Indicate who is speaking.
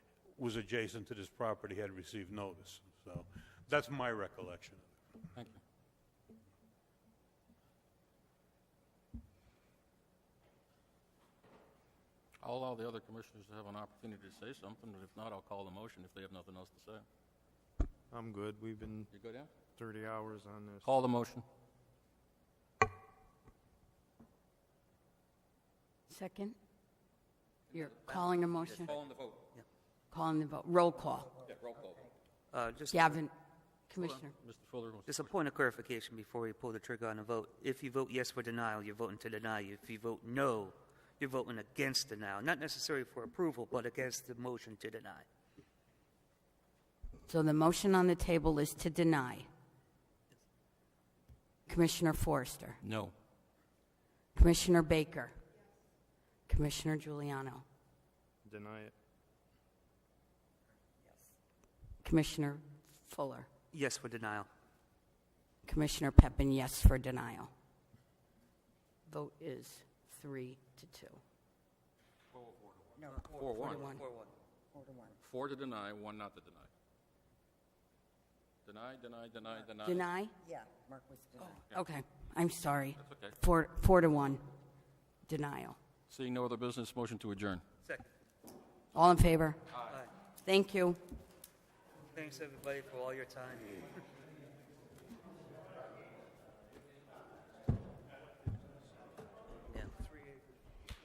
Speaker 1: was adjacent to this property had received notice. So that's my recollection.
Speaker 2: Thank you. I'll allow the other commissioners to have an opportunity to say something, but if not, I'll call the motion if they have nothing else to say.
Speaker 3: I'm good. We've been
Speaker 2: You go down?
Speaker 3: 30 hours on this.
Speaker 2: Call the motion.
Speaker 4: Second? You're calling a motion,
Speaker 2: Calling the vote.
Speaker 4: calling the vote, roll call.
Speaker 2: Yeah, roll call.
Speaker 5: Uh, Just,
Speaker 4: Gavin, Commissioner,
Speaker 2: Mr. Fuller, was-
Speaker 5: just a point of clarification before we pull the trigger on the vote. If you vote yes for denial, you're voting to deny. If you vote no, you're voting against denial, not necessarily for approval, but against the motion to deny.
Speaker 4: so the motion on the table is to deny. Commissioner Forrester,
Speaker 2: no.
Speaker 4: Commissioner Baker, Commissioner Giuliano,
Speaker 3: Deny it.
Speaker 4: Commissioner Fuller,
Speaker 5: Yes for denial.
Speaker 4: Commissioner Pepin, yes for denial. Vote is three to two.
Speaker 2: Four, one.
Speaker 4: One.
Speaker 2: Four to deny, one not to deny. Deny, deny, deny, deny.
Speaker 4: Deny?
Speaker 6: Yeah, Mark was denied.
Speaker 4: Okay, I'm sorry.
Speaker 2: That's okay.
Speaker 4: Four, four to one, denial.
Speaker 2: Seeing no other business, motion to adjourn.
Speaker 5: Second.
Speaker 4: All in favor?
Speaker 5: Aye.
Speaker 4: Thank you.
Speaker 5: Thanks, everybody, for all your time.